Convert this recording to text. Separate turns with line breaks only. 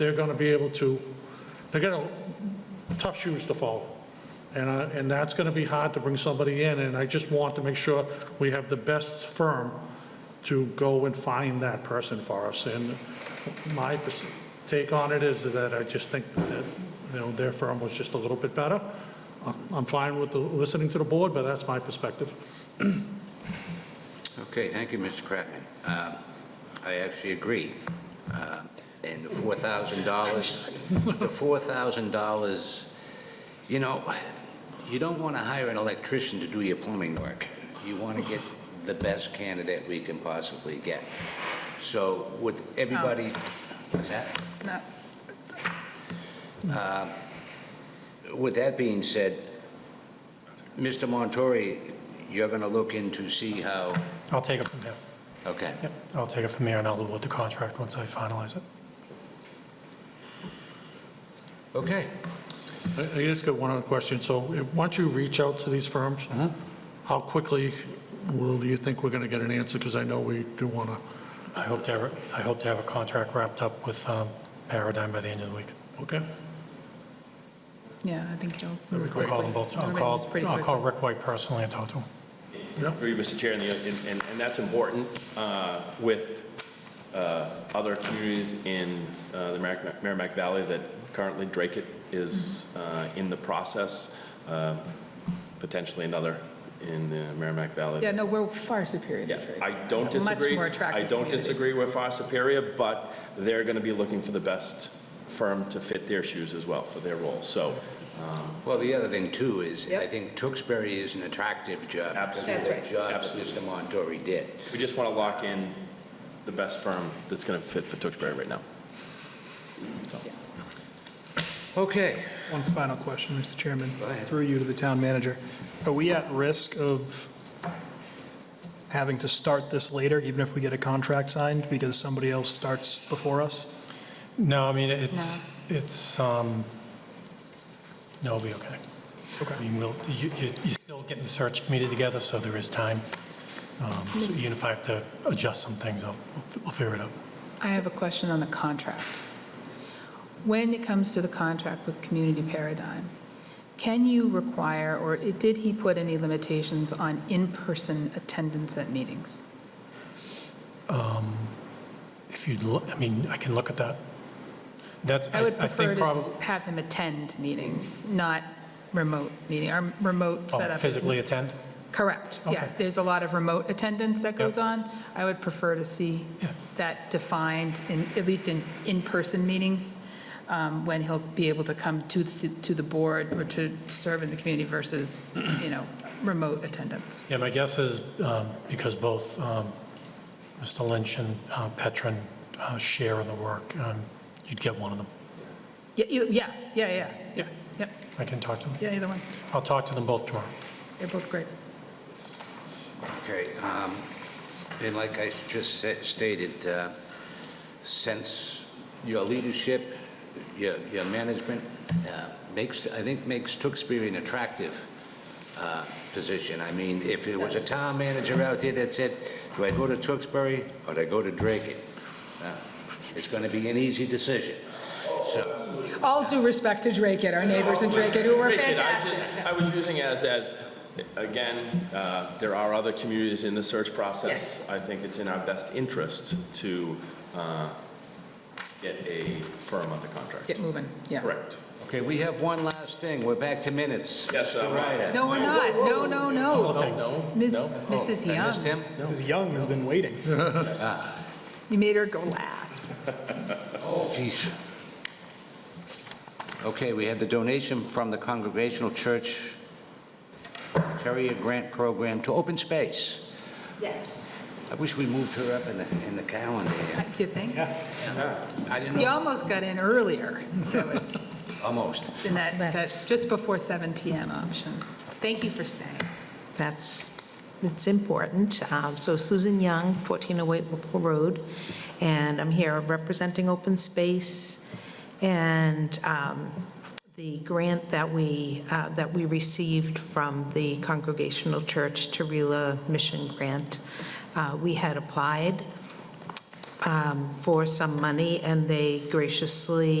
they're going to be able to, they're going to, tough shoes to follow. And, I- and that's going to be hard to bring somebody in, and I just want to make sure we have the best firm to go and find that person for us. And my pers- take on it is that I just think that, you know, their firm was just a little bit better. I'm- I'm fine with the- listening to the board, but that's my perspective.
Okay, thank you, Mr. Kratman. Um, I actually agree. Uh, And the $4,000, the $4,000, you know, you don't want to hire an electrician to do your plumbing work. You want to get the best candidate we can possibly get. So with everybody, what's that?
No.
With that being said, Mr. Montori, you're going to look into see how,
I'll take it from there.
okay.
Yep, I'll take it from there, and I'll award the contract once I finalize it.
Okay.
I I just got one other question. So if- once you reach out to these firms, how quickly will, do you think we're going to get an answer? Because I know we do want to,
I hope to have, I hope to have a contract wrapped up with um, Paradigm by the end of the week.
okay?
Yeah, I think he'll.
That'd be
I'll
great.
call them both, I'll
Everything's
call,
pretty
I'll call
quickly.
Rick White personally and talk to him.
Yeah.
Agree, Mr. Chair, and, the- and- and, and that's important uh, with uh, other communities in uh, the Merrimack Merrimack Valley that currently Drake it is uh, in the process, uh, potentially another in the Merrimack Valley.
Yeah, no, we're far superior to
Yeah,
Drake.
I don't
Much
disagree.
more attractive
I don't
community.
disagree with Far Superior, but they're going to be looking for the best firm to fit their shoes as well for their role. So
Well, the other thing too is, I
Yep.
think Tewksbury is an attractive job.
Absolutely.
That's right.
The job that
Absolutely.
Mr. Montori did.
we just want to lock in the best firm that's going to fit for Tewksbury right now.
Okay.
One final question, Mr. Chairman.
Go ahead.
Through you to the town manager. Are we at risk of having to start this later, even if we get a contract signed, because somebody else starts before us?
No, I mean, it's, it's, um, no, it'll be okay. Okay. I mean, we'll, you, you- you're still getting the search committee together, so there is time. Um, So even if I have to adjust some things, I'll, I'll figure it out.
I have a question on the contract. When it comes to the contract with Community Paradigm, can you require, or it- did he put any limitations on in-person attendance at meetings?
Um, If you'd, look- I mean, I can look at that. That's,
I
I
would
I
prefer
think
to
probably,
have him attend meetings, not remote meeting, or remote
Oh,
setup.
physically attend?
Correct, yeah.
Okay.
There's a lot of remote attendance that goes
Yep.
on. I would prefer to see
Yeah.
that defined, in at least in in-person meetings, um, when he'll be able to come to, the s- to the board or to serve in the community versus, you know, remote attendance.
Yeah, my guess is um, because both um, Mr. Lynch and uh, Petron uh, share in the work, um, you'd get one of them.
Yeah, you- yeah, yeah, yeah, yeah, yeah,
I can talk to them.
yeah, either one.
I'll talk to them both tomorrow.
They're both great.
Okay. um, And like I just sa- stated, uh, since your leadership, your, your management uh, makes, I think makes Tewksbury an attractive uh, position. I mean, if it was a town manager out there that said, do I go to Tewksbury or do I go to Drake? it?" Uh, It's going to be an easy decision. So,
All due respect to Drake It, our neighbors in Drake It, who were
Great, and I
fantastic.
just, I was using as, as, again, uh, there are other communities in the search process. I think it's in our best interest to uh, get a firm under contract.
Get moving, yeah.
Correct.
okay, we have one last thing. We're back to minutes.
Yes,
Mr.
um,
Ryder.
No, we're not, no, no, no.
Well, thanks.
Ms.
Oh, No? Oh,
Mrs.
Oh, I
Young.
missed him?
Mrs. Young has been waiting.
You made her go last.
Jeez. Okay, we have the donation from the Congregational Church Terrier Grant Program to Open Space.
Yes.
I wish we moved her up in the, in the calendar here.
You think?
I didn't
You
know,
almost got in earlier. That was
almost.
in that, that's just before 7 PM option. Thank you for staying.
That's, it's important. Um, So Susan Young, 1408 Whipple Road, and I'm here representing Open Space. And um, the grant that we, uh, that we received from the Congregational Church Tarila Mission Grant, uh, we had applied um, for some money, and they graciously